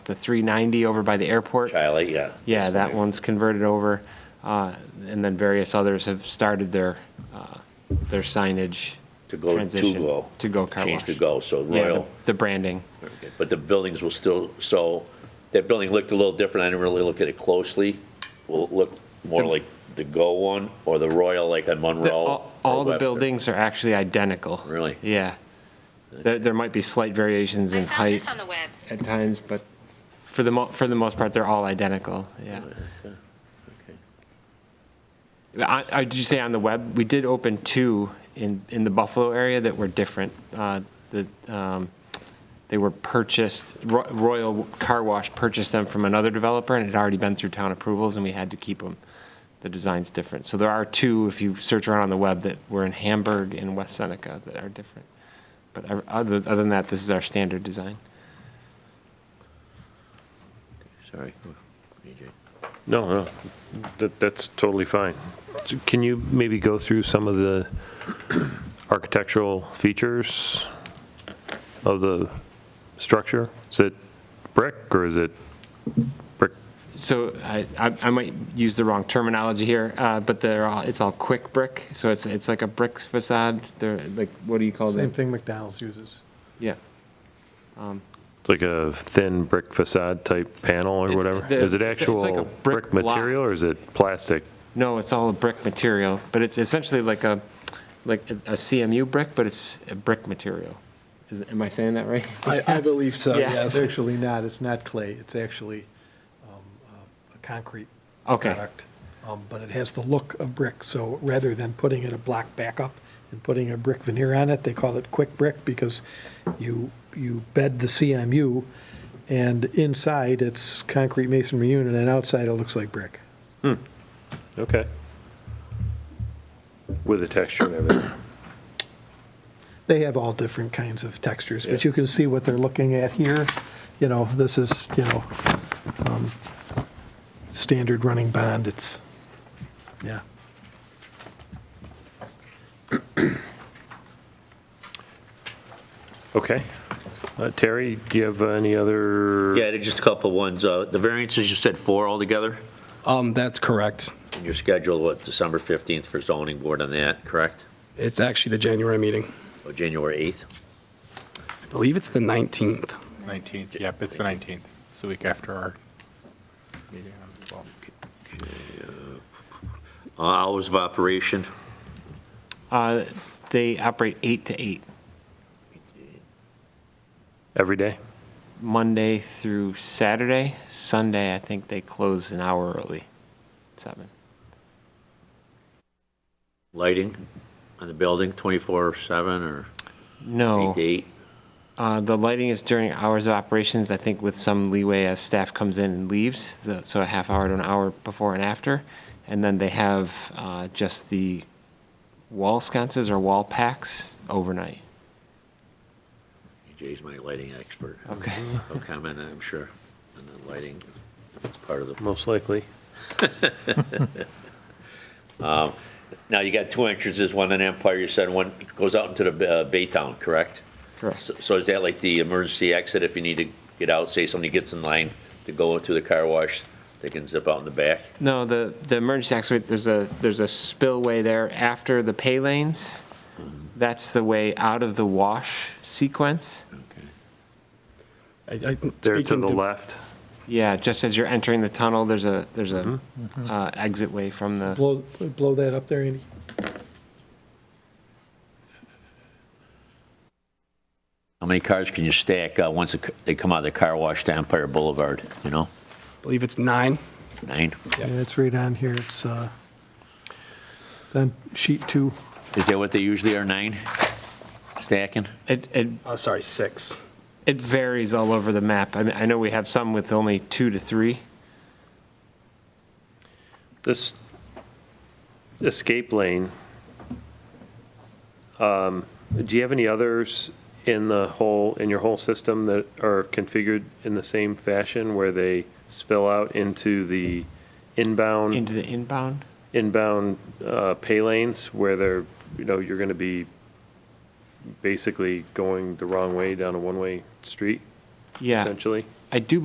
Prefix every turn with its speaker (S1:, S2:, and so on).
S1: the 390 over by the airport.
S2: Chilet, yeah.
S1: Yeah, that one's converted over. Uh, And then various others have started their, uh, their signage
S2: To go, to
S1: transition.
S2: go.
S1: To-go car wash.
S2: Change to go, so
S1: Yeah, the-
S2: Royal,
S1: the branding.
S2: but the buildings will still, so, that building looked a little different, I didn't really look at it closely. Will it look more like the Go one, or the Royal, like on Monroe?
S1: The- all-
S2: or
S1: All the
S2: Webster?
S1: buildings are actually identical.
S2: Really?
S1: Yeah. There, there might be slight variations
S3: I
S1: in
S3: found
S1: height
S3: this on the web.
S1: at times, but for the, mo- for the most part, they're all identical, yeah. I, I, did you say on the web? We did open two in, in the Buffalo area that were different. Uh, that um, they were purchased. Ro- Royal Car Wash purchased them from another developer, and it had already been through town approvals, and we had to keep them. The design's different. So there are two, if you search around on the web, that were in Hamburg and West Seneca that are different. But ev- other, other than that, this is our standard design.
S2: Sorry. AJ.
S4: No, no, that, that's totally fine. So Can you maybe go through some of the architectural features of the structure? Is it brick or is it brick?
S1: So I, I, I might use the wrong terminology here, uh, but they're all, it's all quick brick. So it's, it's like a brick facade. They're like, what do you call
S5: Same
S1: them?
S5: thing McDonald's uses.
S1: Yeah.
S4: It's like a thin brick facade type panel or
S1: It-
S4: whatever?
S1: the-
S4: Is it
S1: it's a- it's like a
S4: actual
S1: brick
S4: brick
S1: block.
S4: material or is it plastic?
S1: No, it's all a brick material, but it's essentially like a, like a a CMU brick, but it's a brick material. Is, am I saying that right?
S6: I, I believe so,
S1: Yeah.
S5: It's
S6: yes.
S5: actually not, it's not clay, it's actually um, uh, a concrete
S1: Okay.
S5: product. Um, But it has the look of brick, so rather than putting it a block back up and putting a brick veneer on it, they call it quick brick because you, you bed the CMU, and inside it's concrete masonry unit, and outside it looks like brick.
S4: Okay. With a texture and everything.
S5: They have all different kinds of textures, but you can see what they're looking at here. You know, this is, you know, um, standard running bond, it's, yeah.
S4: Okay. Uh, Terry, do you have any other?
S2: Yeah, there's just a couple ones, uh, the variances, you said four altogether?
S6: Um, that's correct.
S2: And you're scheduled, what, December 15th for zoning board on that, correct?
S6: It's actually the January meeting.
S2: Or January 8th?
S6: I believe it's the 19th.
S7: 19th, yep, it's the 19th. It's the week after our meeting on the 12th.
S2: Uh, Hours of operation,
S1: Uh, they operate eight to eight,
S4: Every day?
S1: Monday through Saturday. Sunday, I think they close an hour early, seven.
S2: lighting on the building, 24/7 or
S1: No.
S2: 8 to 8?
S1: Uh, The lighting is during hours of operations, I think with some leeway as staff comes in and leaves, the- so a half hour to an hour before and after. And then they have uh, just the wall sconces or wall packs overnight.
S2: Jay's my lighting expert.
S1: Okay.
S2: No comment, I'm sure, on the lighting, it's part of the.
S4: Most likely.
S2: Now, you got two entrances, one on Empire, you said, one goes out into the uh, Baytown, correct?
S1: Correct.
S2: So- So is that like the emergency exit if you need to get out, say somebody gets in line to go into the car wash, they can zip out in the back?
S1: No, the, the emergency exit, there's a, there's a spillway there after the pay lanes. That's the way out of the wash sequence.
S6: I, I,
S4: There to
S6: speaking
S4: the
S6: to-
S4: left?
S1: Yeah, just as you're entering the tunnel, there's a, there's a uh, exit way from the.
S5: Blow, blow that up there, Andy.
S2: How many cars can you stack uh, once it c- they come out of the car wash to Empire Boulevard, you know?
S6: believe it's nine.
S2: Nine?
S5: Yeah, it's right on here, it's, uh, it's on sheet two.
S2: Is that what they usually are, nine? Stacking?
S1: It, it
S6: Oh, sorry, six.
S1: It varies all over the map. I mean, I know we have some with only two to three.
S4: This escape lane, um, do you have any others in the whole, in your whole system that are configured in the same fashion where they spill out into the inbound,
S1: Into the inbound?
S4: inbound uh, pay lanes where they're, you know, you're going to be basically going the wrong way down a one-way street,
S1: Yeah,
S4: essentially?
S1: I do